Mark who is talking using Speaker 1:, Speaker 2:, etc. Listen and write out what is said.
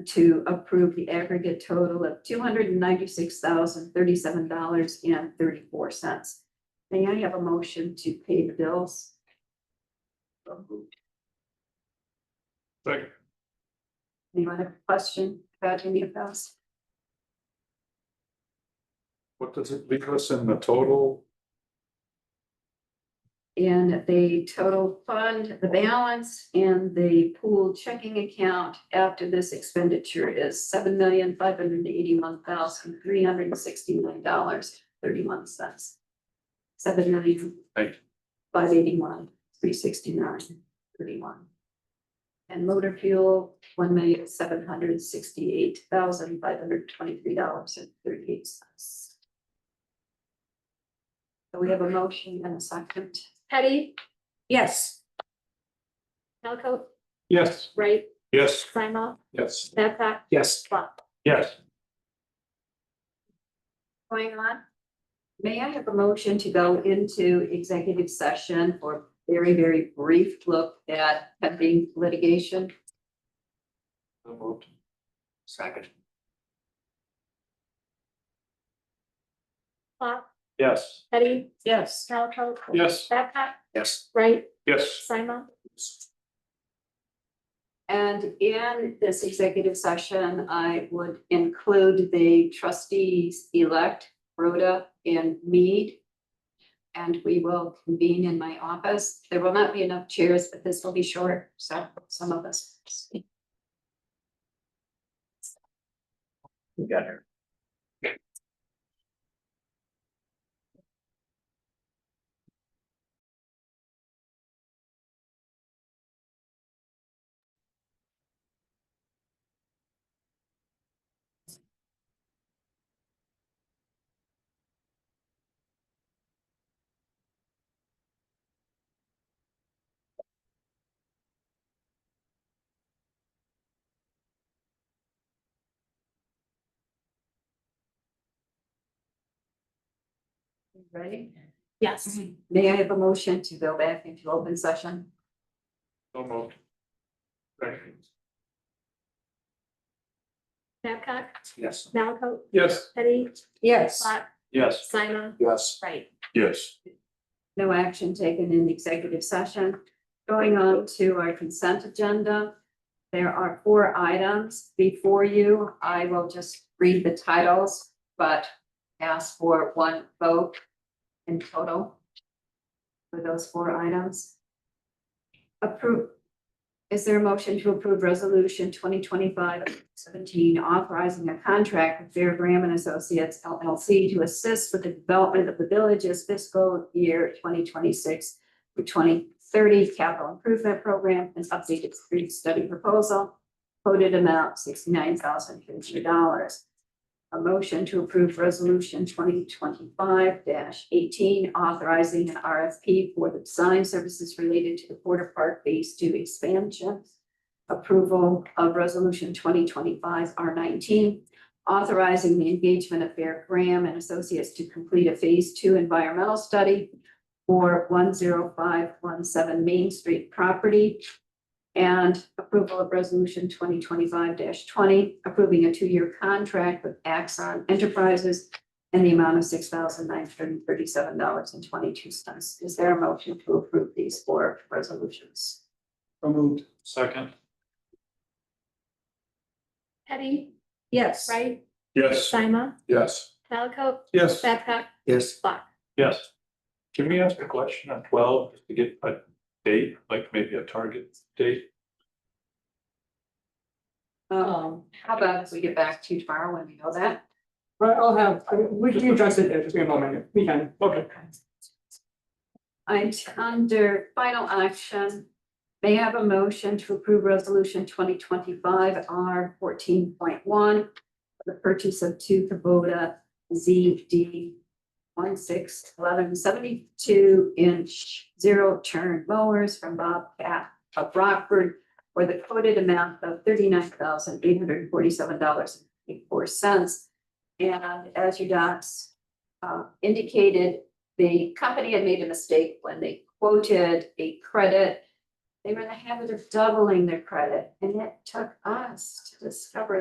Speaker 1: to approve the aggregate total of two hundred and ninety-six thousand, thirty-seven dollars and thirty-four cents. May I have a motion to pay the bills?
Speaker 2: Second.
Speaker 1: Anyone have a question about any of those?
Speaker 2: What does it leave us in the total?
Speaker 1: And the total fund, the balance in the pool checking account after this expenditure is seven million, five hundred and eighty-one thousand, three hundred and sixty-nine dollars, thirty-one cents. Seven million.
Speaker 2: Right.
Speaker 1: Five eighty-one, three sixty-nine, thirty-one. And motor fuel, one million, seven hundred and sixty-eight thousand, five hundred and twenty-three dollars and thirty-eight cents. So we have a motion and a second.
Speaker 3: Petty,
Speaker 4: Yes.
Speaker 3: Elko,
Speaker 2: Yes.
Speaker 3: Wright,
Speaker 2: Yes.
Speaker 3: Simon,
Speaker 2: Yes.
Speaker 3: Babcock,
Speaker 4: Yes.
Speaker 3: Swap.
Speaker 2: Yes.
Speaker 1: going on. May I have a motion to go into executive session for very, very brief look at pending litigation?
Speaker 4: Second.
Speaker 3: Swap,
Speaker 2: Yes.
Speaker 3: Petty,
Speaker 4: Yes.
Speaker 3: Elko,
Speaker 2: Yes.
Speaker 3: Babcock,
Speaker 4: Yes.
Speaker 3: Wright,
Speaker 2: Yes.
Speaker 3: Simon,
Speaker 1: And in this executive session, I would include the trustees-elect, Rhoda and Mead. And we will convene in my office. There will not be enough chairs, but this will be short, so some of us. speak.
Speaker 4: You got her.
Speaker 1: Ready?
Speaker 3: yes.
Speaker 1: May I have a motion to go back into open session?
Speaker 2: So moved. Second.
Speaker 3: Babcock,
Speaker 4: Yes.
Speaker 3: Elko,
Speaker 2: Yes.
Speaker 3: Petty,
Speaker 4: Yes.
Speaker 3: Swap,
Speaker 2: Yes.
Speaker 3: Simon,
Speaker 4: Yes.
Speaker 3: Wright.
Speaker 2: Yes.
Speaker 1: No action taken in executive session. Going on to our consent agenda. There are four items before you. I will just read the titles, but ask for one vote in total for those four items. Approve. Is there a motion to approve resolution 2025-17 authorizing a contract with Fair Graham and Associates LLC to assist with the development of the village's fiscal year twenty twenty-six through twenty thirty capital improvement program and updated street study proposal. Quoted amount sixty-nine thousand fifty dollars. A motion to approve resolution twenty twenty-five eighteen authorizing an RFP for the design services related to the Porter Park Phase Two expansion. Approval of resolution twenty twenty-five R nineteen authorizing the engagement of Bear Graham and Associates to complete a Phase Two environmental study for one zero five one seven Main Street property. And approval of resolution twenty twenty-five twenty, approving a two-year contract with Axon Enterprises in the amount of six thousand nine hundred and thirty-seven dollars and twenty-two cents. Is there a motion to approve these four resolutions?
Speaker 4: So moved.
Speaker 2: Second.
Speaker 3: Petty,
Speaker 4: Yes.
Speaker 3: Wright,
Speaker 2: Yes.
Speaker 3: Simon,
Speaker 2: Yes.
Speaker 3: Elko,
Speaker 2: Yes.
Speaker 3: Babcock,
Speaker 4: Yes.
Speaker 3: Swap.
Speaker 2: Yes. Can we ask a question on twelve, just to get a date, like maybe a target date?
Speaker 1: Um, how about if we get back to you tomorrow when we know that?
Speaker 5: Right, I'll have, I- we can address it, in just give me a moment, we can.
Speaker 2: Okay.
Speaker 1: I'm under final action. May I have a motion to approve resolution twenty twenty-five R fourteen point one. The purchase of two Kubota ZD one six eleven seventy-two inch zero turn mowers from Bob Cat of Rockford. For the quoted amount of thirty-nine thousand eight hundred and forty-seven dollars and eighty-four cents. And as your docs uh, indicated, the company had made a mistake when they quoted a credit They were in the habit of doubling their credit, and it took us to discover